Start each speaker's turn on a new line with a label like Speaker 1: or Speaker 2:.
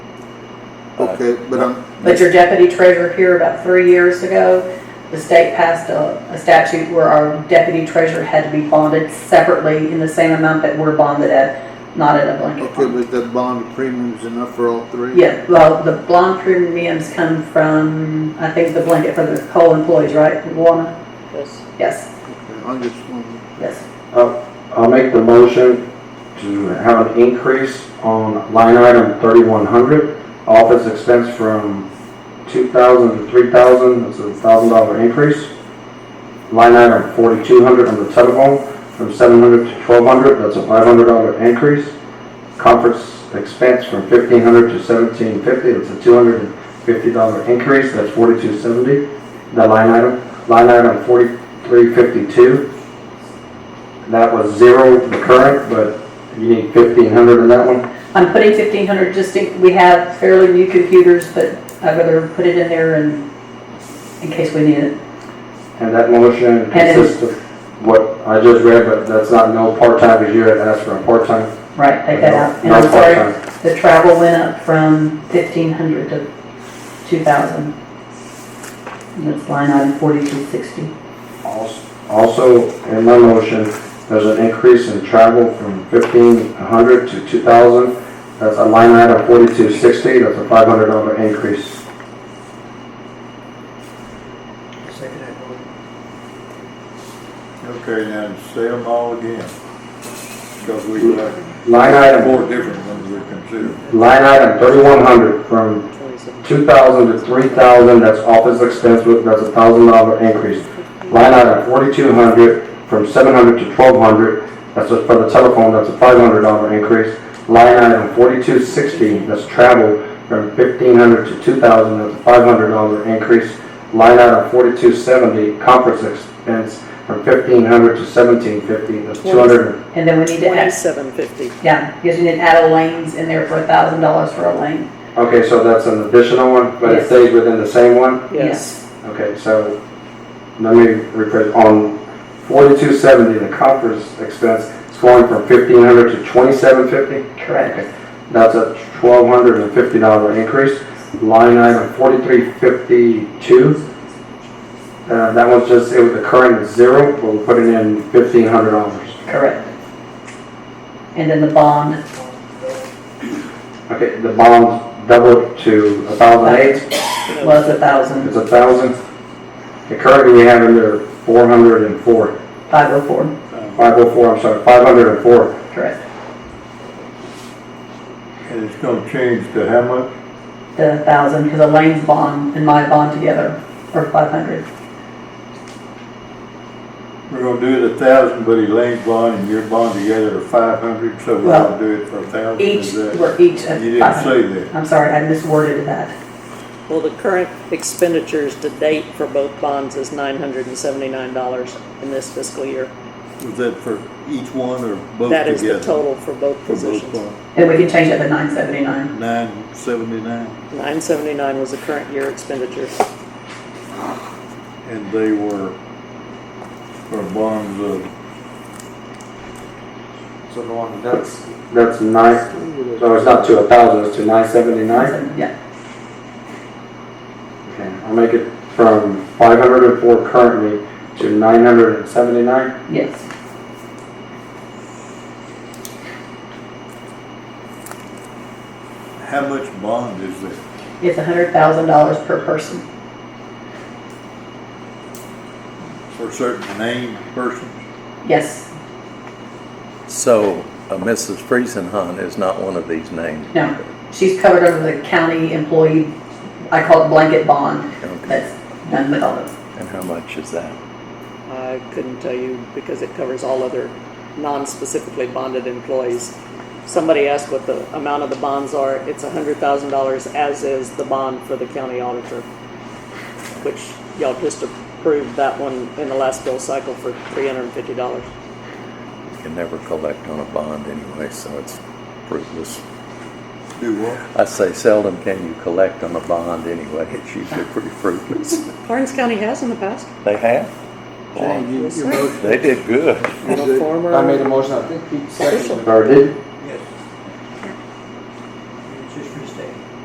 Speaker 1: Okay, but I'm,
Speaker 2: But your deputy treasurer here about three years ago, the state passed a, a statute where our deputy treasurer had to be bonded separately in the same amount that we're bonded at, not at a blanket
Speaker 1: okay,
Speaker 2: bond.
Speaker 1: but that bond premium's enough for all three?
Speaker 2: Yeah, well, the blonde premiums come from, I think, the blanket for the coal employees, right, Luana?
Speaker 3: Yes.
Speaker 2: Yes,
Speaker 1: Okay, I'm just wondering.
Speaker 2: yes.
Speaker 4: I'll make the motion to have an increase on line item thirty-one hundred, office expense from two thousand to three thousand, that's a thousand dollar increase. Line item forty-two hundred on the telephone, from seven hundred to twelve hundred, that's a five hundred dollar increase. Conference expense from fifteen hundred to seventeen fifty, that's a two hundred and fifty dollar increase, that's forty-two seventy. The line item, line item forty-three fifty-two, that was zero the current, but you need fifteen hundred in that one.
Speaker 2: I'm putting fifteen hundred, just in, we have fairly new computers, but I'd rather put it in there and, in case we need it.
Speaker 4: And that motion
Speaker 2: it-
Speaker 4: consists of what I just read, but that's not no part-time, because you had asked for a part-time.
Speaker 2: Right, take that out. And
Speaker 4: No
Speaker 2: I'm sorry,
Speaker 4: part-time.
Speaker 2: The travel went up from fifteen hundred to two thousand. And that's line item forty-two sixty.
Speaker 4: Also- Also, in my motion, there's an increase in travel from fifteen hundred to two thousand. That's a line item forty-two sixty, that's a five hundred dollar increase.
Speaker 5: Okay, now say them all again, because we have
Speaker 4: Line item,
Speaker 5: four different ones we consider.
Speaker 4: line item thirty-one hundred from two thousand to three thousand, that's office expense, that's a thousand dollar increase. Line item forty-two hundred, from seven hundred to twelve hundred, that's just for the telephone, that's a five hundred dollar increase. Line item forty-two sixty, that's travel, from fifteen hundred to two thousand, that's a five hundred dollar increase. Line item forty-two seventy, conference expense, from fifteen hundred to seventeen fifty, that's two hundred.
Speaker 2: And then we need to add,
Speaker 3: Twenty-seven fifty.
Speaker 2: yeah, because you need to add a lanes in there for a thousand dollars for a lane.
Speaker 4: Okay, so that's an additional one, but it
Speaker 2: Yes.
Speaker 4: stays within the same one?
Speaker 3: Yes.
Speaker 4: Okay, so let me rephrase, on forty-two seventy, the conference expense is going from fifteen hundred to twenty-seven fifty?
Speaker 2: Correct.
Speaker 4: That's a twelve hundred and fifty dollar increase. Line item forty-three fifty-two. Uh, that was just, it was, the current is zero, but we're putting in fifteen hundred dollars.
Speaker 2: Correct. And then the bond,
Speaker 4: Okay, the bond doubled to a thousand eight.
Speaker 2: was a thousand,
Speaker 4: It's a thousand. Currently, we have under four hundred and four,
Speaker 2: five oh four,
Speaker 4: five oh four, I'm sorry, five hundred and four.
Speaker 2: correct.
Speaker 5: And it's gonna change to how much?
Speaker 2: The thousand, because a lane's bond and my bond together are five hundred.
Speaker 5: We're gonna do it a thousand, but Elaine's bond and your bond together are five hundred, so we're
Speaker 2: Well,
Speaker 5: gonna do it for a thousand.
Speaker 2: Each, we're each
Speaker 5: You
Speaker 2: at
Speaker 5: didn't
Speaker 2: five
Speaker 5: say
Speaker 2: hundred.
Speaker 5: that.
Speaker 2: I'm sorry, I misworded that.
Speaker 3: Well, the current expenditures to date for both bonds is nine hundred and seventy-nine dollars in this fiscal year.
Speaker 5: Was that for each one or both together?
Speaker 3: That is the total for both
Speaker 5: For both
Speaker 3: positions.
Speaker 5: bonds,
Speaker 2: And we can change it to nine seventy-nine.
Speaker 5: nine seventy-nine,
Speaker 3: Nine seventy-nine was the current year expenditure.
Speaker 5: and they were for bonds of,
Speaker 4: So the one that's. That's nine, so it's not to a thousand, it's to nine seventy-nine?
Speaker 2: Yeah,
Speaker 4: Okay, I'll make it from five hundred and four currently to nine hundred and seventy-nine.
Speaker 2: yes.
Speaker 5: how much bond is that?
Speaker 2: It's a hundred thousand dollars per person.
Speaker 5: For certain named persons?
Speaker 2: Yes,
Speaker 6: So uh, Mrs. Friesenhunt is not one of these names?
Speaker 2: no. She's covered under the county employee, I call it blanket bond,
Speaker 6: Okay.
Speaker 2: that's done with all those.
Speaker 6: And how much is that?
Speaker 3: I couldn't tell you because it covers all other non-specifically bonded employees. Somebody asked what the amount of the bonds are. It's hundred thousand dollars, as is the bond for the county auditor, which y'all just approved that one in the last bill cycle for three hundred and fifty dollars.
Speaker 6: You can never collect on a bond anyway, so it's fruitless.
Speaker 5: Do what?
Speaker 6: I say seldom can you collect on a bond anyway. It's usually pretty fruitless.
Speaker 3: Clarence County has in the past.
Speaker 6: They have?
Speaker 5: Jane, you- you voted
Speaker 6: They did good.
Speaker 3: And a former-
Speaker 4: motion, I think Pete seconded. Or did?